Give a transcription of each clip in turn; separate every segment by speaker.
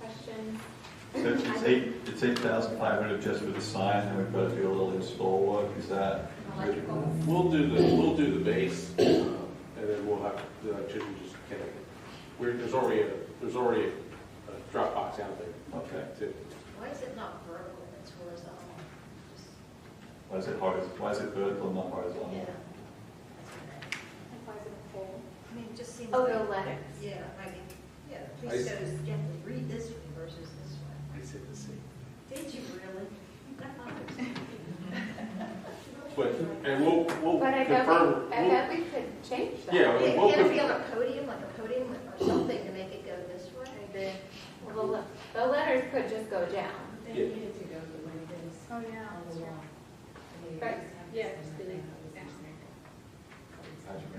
Speaker 1: section.
Speaker 2: So it's- it's eight, it's eight thousand five hundred just for the sign, and we've got to do a little install work, is that?
Speaker 1: Electrical.
Speaker 3: We'll do the, we'll do the base, uh, and then we'll have the electrician just connect it. We're, there's already a, there's already a drop box out there
Speaker 2: Okay.
Speaker 3: too.
Speaker 4: Why is it not vertical, it's horizontal? Just-
Speaker 2: Why is it hard, why is it vertical and not
Speaker 4: Yeah.
Speaker 2: horizontal?
Speaker 1: Applies to the pole.
Speaker 4: I mean, it just seems.
Speaker 1: Oh,
Speaker 4: like-
Speaker 1: the letters.
Speaker 4: Yeah, I mean, yeah,
Speaker 3: I
Speaker 4: please
Speaker 3: s-
Speaker 4: show us, you have to read this one versus this one.
Speaker 3: I said the same.
Speaker 4: Did you really? I thought it was-
Speaker 3: But, and we'll, we'll
Speaker 1: But I bet,
Speaker 3: confirm,
Speaker 1: we- I
Speaker 3: we'll,
Speaker 1: bet we could change that.
Speaker 3: yeah,
Speaker 4: Yeah,
Speaker 3: we'll,
Speaker 4: Can it be
Speaker 3: conf-
Speaker 4: on a podium, like a podium or something to make it go this way? Then
Speaker 1: Well, The le- the letters could just go down.
Speaker 5: They
Speaker 3: Yeah.
Speaker 5: needed to go to the windows
Speaker 1: Oh, yeah.
Speaker 5: on the wall.
Speaker 1: Right, yeah, just delete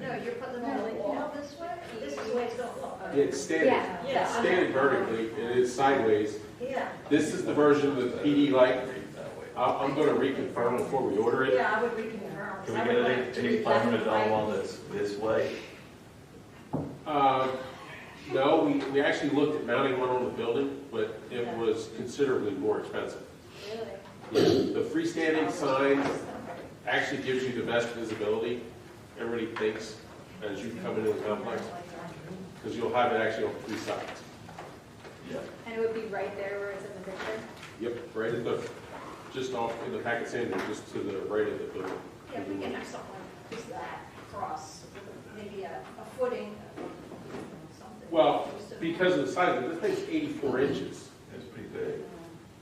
Speaker 4: No, you're putting them
Speaker 1: No,
Speaker 4: on the
Speaker 1: like,
Speaker 4: wall
Speaker 1: no.
Speaker 4: this way? This is the way it's going to look.
Speaker 3: it's standing,
Speaker 1: Yeah.
Speaker 5: Yeah.
Speaker 3: it's standing vertically, and it's sideways.
Speaker 4: Yeah.
Speaker 3: This is the version of the PD light.
Speaker 2: That way.
Speaker 3: I, I'm gonna reconfirm before we order it.
Speaker 4: Yeah, I would reconfirm. 'cause
Speaker 2: Can
Speaker 4: I
Speaker 2: we
Speaker 4: would
Speaker 2: get
Speaker 4: like
Speaker 2: an
Speaker 4: to read
Speaker 2: eight five hundred dollar
Speaker 4: left
Speaker 2: one that's this way?
Speaker 3: Uh, no, we, we actually looked at mounting one on the building, but it was considerably more expensive.
Speaker 4: and right.
Speaker 3: Yeah, The freestanding sign
Speaker 4: Really?
Speaker 3: actually gives you the best visibility, everybody thinks, as you come into the complex, because you'll have it actually on three sides.
Speaker 2: Yeah.
Speaker 1: And it would be right there where it's in the picture.
Speaker 3: Yep, right at the, just off in the packet center, just to the right of the building.
Speaker 4: Yeah, we can have something just that cross, maybe a a footing, something.
Speaker 3: Well,
Speaker 4: Just a-
Speaker 3: because of the size, this thing's eighty-four inches,
Speaker 2: It's pretty big.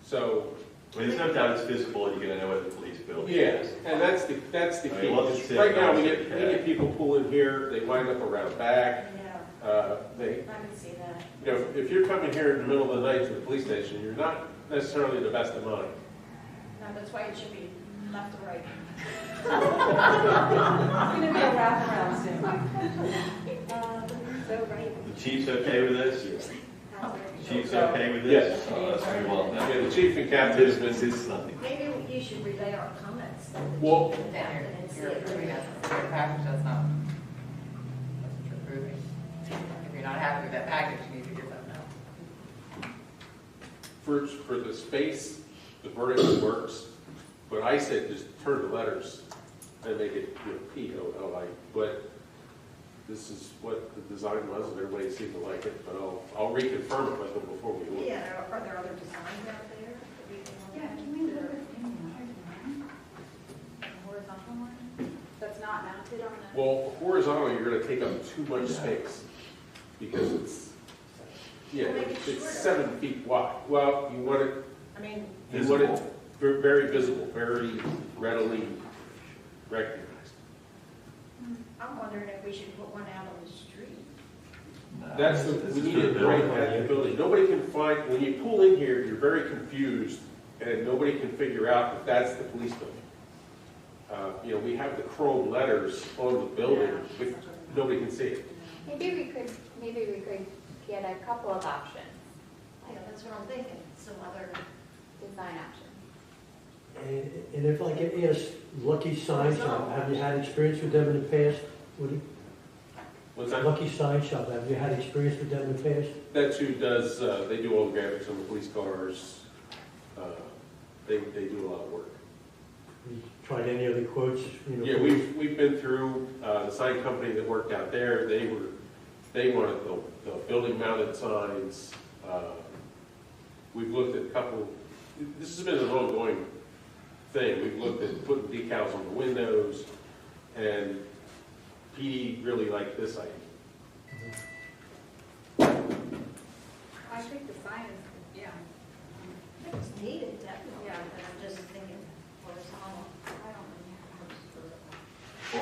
Speaker 3: so,
Speaker 2: I mean, there's no doubt it's visible, and you're gonna know where the police building
Speaker 3: yeah,
Speaker 2: is.
Speaker 3: and that's the, that's the
Speaker 2: I mean,
Speaker 3: key.
Speaker 2: let's just say
Speaker 3: Right now, we
Speaker 2: that's
Speaker 3: get, we
Speaker 2: okay.
Speaker 3: get people pull in here, they wind up around back,
Speaker 4: Yeah,
Speaker 3: uh, they,
Speaker 5: I can see that.
Speaker 3: You know, if you're coming here in the middle of the night to the police station, you're not necessarily the best of mind.
Speaker 4: no, that's why it should be left to right.
Speaker 5: It's gonna be a wraparound soon.
Speaker 4: Uh,
Speaker 1: So right.
Speaker 2: The chief's okay with this? Chief's okay with this?
Speaker 3: Yes.
Speaker 2: Oh, that's very well done.
Speaker 3: Yeah, the chief and captain
Speaker 2: This
Speaker 3: has
Speaker 2: this
Speaker 3: been,
Speaker 2: is something.
Speaker 4: Maybe you should relay our comments. that the
Speaker 3: Well-
Speaker 4: chief and captain and see
Speaker 5: You're
Speaker 4: if
Speaker 5: approving
Speaker 4: we-
Speaker 5: that separate package, that's not, that's what you're approving. If you're not happy with that package, you need to give that now.
Speaker 3: for, for the space, the vertical works, but I said just turn the letters and make it, you know, P O L I, but this is what the design was, and everybody seemed to like it, but I'll, I'll reconfirm it with them before we order.
Speaker 4: Yeah, are there other designs out there? that we
Speaker 1: Yeah, can we look at any Horizontal one that's not mounted on the.
Speaker 3: Well, horizontally, you're gonna take up too much space, because it's, yeah,
Speaker 4: Well, make it
Speaker 3: it's
Speaker 4: shorter.
Speaker 3: seven feet wide. Well, you want it
Speaker 4: I mean,
Speaker 3: You want it
Speaker 2: Visible.
Speaker 3: ver- very visible, very readily recognized.
Speaker 4: I'm wondering if we should put one out on the street.
Speaker 2: No,
Speaker 3: That's, the
Speaker 2: this
Speaker 3: we
Speaker 2: is
Speaker 3: need
Speaker 2: for
Speaker 3: it right
Speaker 2: building.
Speaker 3: at the building. Nobody can find, when you pull in here, you're very confused, and nobody can figure out that that's the police building. Uh, You know, we have the chrome letters on the building, but nobody can see it.
Speaker 1: Maybe we could, maybe we could get a couple of options,
Speaker 4: Yeah, that's what I'm thinking, some other.
Speaker 1: design options.
Speaker 6: And and if I could ask, Lucky Sign Shop, have you had experience with them in the past? Would-
Speaker 3: What's that?
Speaker 6: Lucky Sign Shop, have you had experience with them in the past?
Speaker 3: That's who does, uh, they do all the graphics on the police cars. Uh, They, they do a lot of work.
Speaker 6: You Tried any other quotes, you know?
Speaker 3: Yeah, we've, we've been through, uh, the sign company that worked out there, they were, they wanted the, the building mounted signs. uh, We've looked at a couple, this has been an ongoing thing, we've looked at putting decals on the windows, and PD really liked this idea.
Speaker 1: I think the sign is, yeah.
Speaker 4: It was needed, definitely,
Speaker 1: Yeah.
Speaker 4: but I'm just thinking, what is on, I don't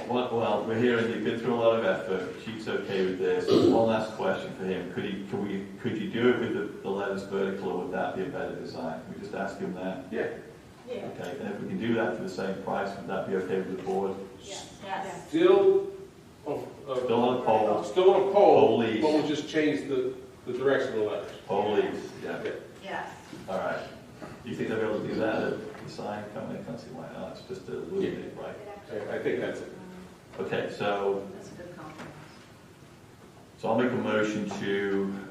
Speaker 4: know.
Speaker 2: Well, well, we're here and you've been through a lot of effort. Chief's okay with this. One last question for him. Could he, could we, could you do it with the, the letters vertical or would that be a better design? Can we just ask him that?
Speaker 3: Yeah.
Speaker 4: Yeah.
Speaker 2: Okay, and if we can do that for the same price, would that be okay with the board?
Speaker 4: Yes.
Speaker 3: Still, oh,
Speaker 2: Still
Speaker 3: uh,
Speaker 2: on poles,
Speaker 3: still on a
Speaker 2: Pole
Speaker 3: pole, but
Speaker 2: leaves.
Speaker 3: we'll just change the, the direction of the letters.
Speaker 2: pole leaves, yeah,
Speaker 3: Okay.
Speaker 4: Yes.
Speaker 2: all right. Do you think they'll be able to do that at the sign company? I can't see why not, it's just a little
Speaker 3: Yeah.
Speaker 2: bit, right?
Speaker 3: I- I think that's it.
Speaker 2: Okay, so,
Speaker 4: That's a good compliment.
Speaker 2: so I'll make a motion to